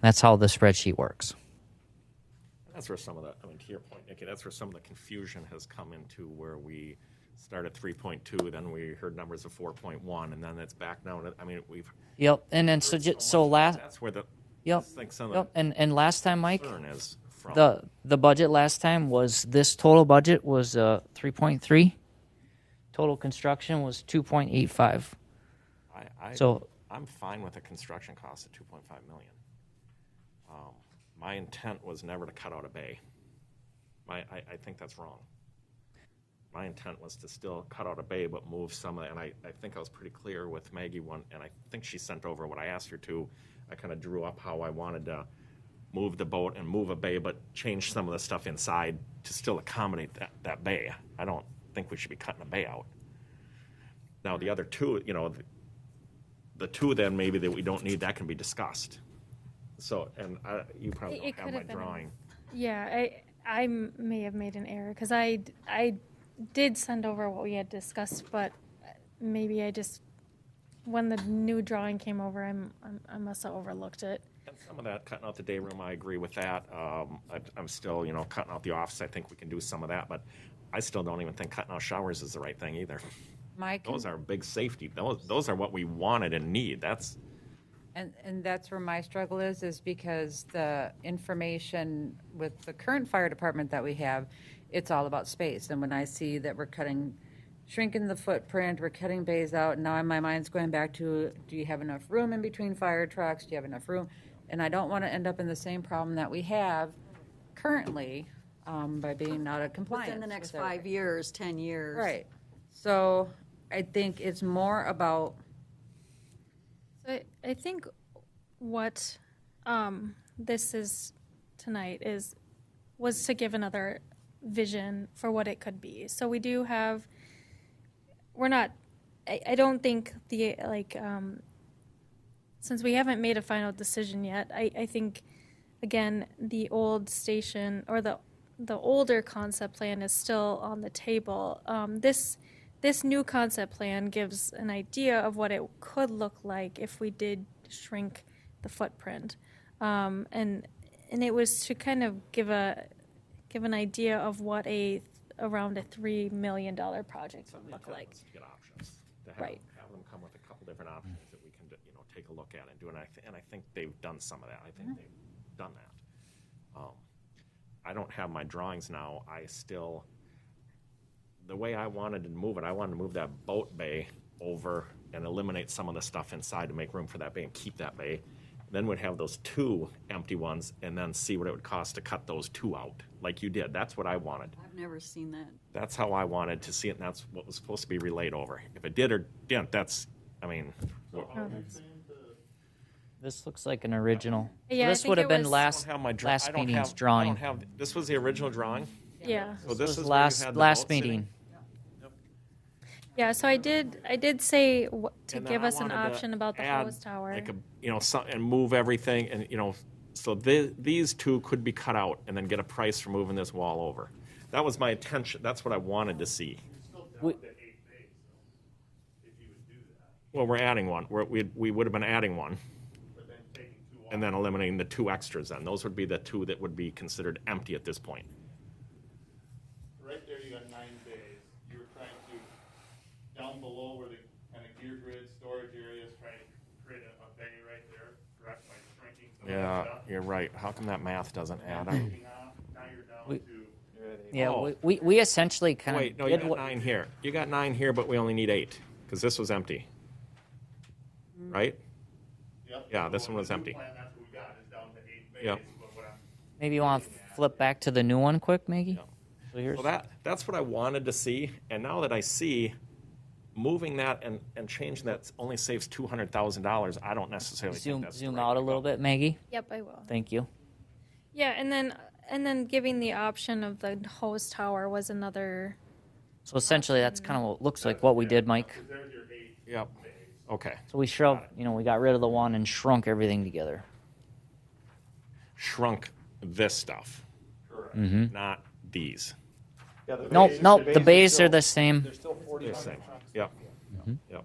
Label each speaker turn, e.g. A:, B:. A: That's how the spreadsheet works.
B: That's where some of the, I mean, to your point, Nikki, that's where some of the confusion has come into where we start at 3.2, then we heard numbers of 4.1, and then it's back down. to- I mean, we've.
A: Yep. And then so
B: heard
A: just, so
B: much.
A: last
B: That's where the.
A: Yep.
B: I think some
A: yep.
B: of
A: and and last time
B: the
A: Mike,
B: concern is from.
A: the the budget last time was this total budget was uh 3.3. Total construction was 2.85.
B: I, I,
A: So-
B: I'm fine with a construction cost of 2.5 million. Um, My intent was never to cut out a bay. My, I, I think that's wrong. My intent was to still cut out a bay, but move some of, and I, I think I was pretty clear with Maggie one, and I think she sent over what I asked her to. I kind of drew up how I wanted to move the boat and move a bay, but change some of the stuff inside to still accommodate that, that bay. I don't think we should be cutting a bay out. Now, the other two, you know, the- the two then maybe that we don't need, that can be discussed. So, and I, you probably
C: It-
B: don't
C: it
B: have
C: could
B: my
C: have been a-
B: drawing.
C: Yeah, I, I m- may have made an error because I, d- I did send over what we had discussed, but maybe I just, when the new drawing came over, I'm, I'm I must have overlooked it.
B: And some of that, cutting out the day room, I agree with that. Um, I, I'm still, you know, cutting out the office, I think we can do some of that, but I still don't even think cutting out showers is the right thing either.
D: My, con-
B: Those are big safety, those, those are what we wanted and need, that's,
D: and, and that's where my struggle is, is because the information with the current fire department that we have, it's all about space. And when I see that we're cutting, shrinking the footprint, we're cutting bays out, now my mind's going back to, do you have enough room in between fire trucks? Do you have enough room? And I don't want to end up in the same problem that we have currently um, by being out of compliance.
E: Within the next
D: with everything.
E: five years, 10 years.
D: Right. So I think it's more about
C: So I, I think what um, this is tonight is was to give another vision for what it could be. So we do have. We're not. I, I don't think the like. Um, since we haven't made a final decision yet, I, I think again the old station or the the older concept plan is still on the table. Um, this this new concept plan gives an idea of what it could look like if we did shrink the footprint, um, and and it was to kind of give a give an idea of what a around a three million dollar project would look like.
B: to get options. To have,
C: Right.
B: have them come with a couple different options that we can, you know, take a look at and do. And I, th- and I think they've done some of that. I
C: Mm-hmm.
B: think they've done that. Um, I don't have my drawings now. I still, the way I wanted to move it, I wanted to move that boat bay over and eliminate some of the stuff inside to make room for that bay and keep that bay. Then we'd have those two empty ones and then see what it would cost to cut those two out, like you did. That's what I wanted.
E: I've never seen that.
B: That's how I wanted to see it, and that's what was supposed to be relayed over. If it did or didn't, that's, I mean, I
A: This looks like an original.
C: Yeah, I
A: this
C: think
A: would have
C: it
A: been
C: was-
A: last
B: don't have my drawing.
A: last meeting's drawing.
B: I don't have, this was the original drawing?
C: Yeah.
B: So
A: this
B: this
A: was
B: is where you
A: last
B: had the
A: last
B: boat sitting?
A: meeting.
C: Yeah, so I did, I did say wh- to
B: And then
C: give
B: I
C: us an
B: wanted to
C: option about the
B: add,
C: hose tower.
B: Like a, you know, some, and move everything, and you know, so thi- these two could be cut out, and then get a price for moving this wall over. That was my intention. That's what I wanted to see. Well, we're adding one. We're, we we would have been adding one, and then eliminating the two extras. Then those would be the two that would be considered empty at this point.
F: Right there, you got nine bays. You were trying to, down below where the kind of gear grid storage area is, trying to create a, a bay right there, correct, by shrinking some of that
B: Yeah,
F: stuff.
B: you're right. How come that math doesn't add up?
F: Taking off, now you're down to.
A: Yeah,
B: Oh.
A: we, we, we essentially kind
B: Wait, no,
A: of
B: you
A: did
B: got
A: what,
B: nine here. You got nine here, but we only need eight because this was empty, right?
F: Yep.
B: Yeah,
F: so
B: this one
F: with
B: was
F: the new
B: empty.
F: plan, that's what we got, is down to eight
B: Yep.
F: bays, but what I'm
A: maybe you want to flip back to the new one quick, Maggie. So here's
B: Well, that that's what I wanted to see, and now that I see, moving that and and changing that only saves two hundred thousand dollars. I don't necessarily think
A: zoom
B: that's the
A: zoom
B: right
A: out a
B: way to
A: little
B: go.
A: bit, Maggie.
C: Yep, I will.
A: Thank you.
C: Yeah, and then, and then giving the option of the hose tower was another,
A: So essentially, that's kind of what looks like what we did, Mike.
F: There's your eight.
B: Yep. Okay.
A: So we shrunk, you know, we got rid of the one and shrunk everything together.
B: Shrunk this stuff,
A: Mm-hmm.
B: not these.
A: Nope, nope. The bays are the same.
B: They're the same. Yep. Yep.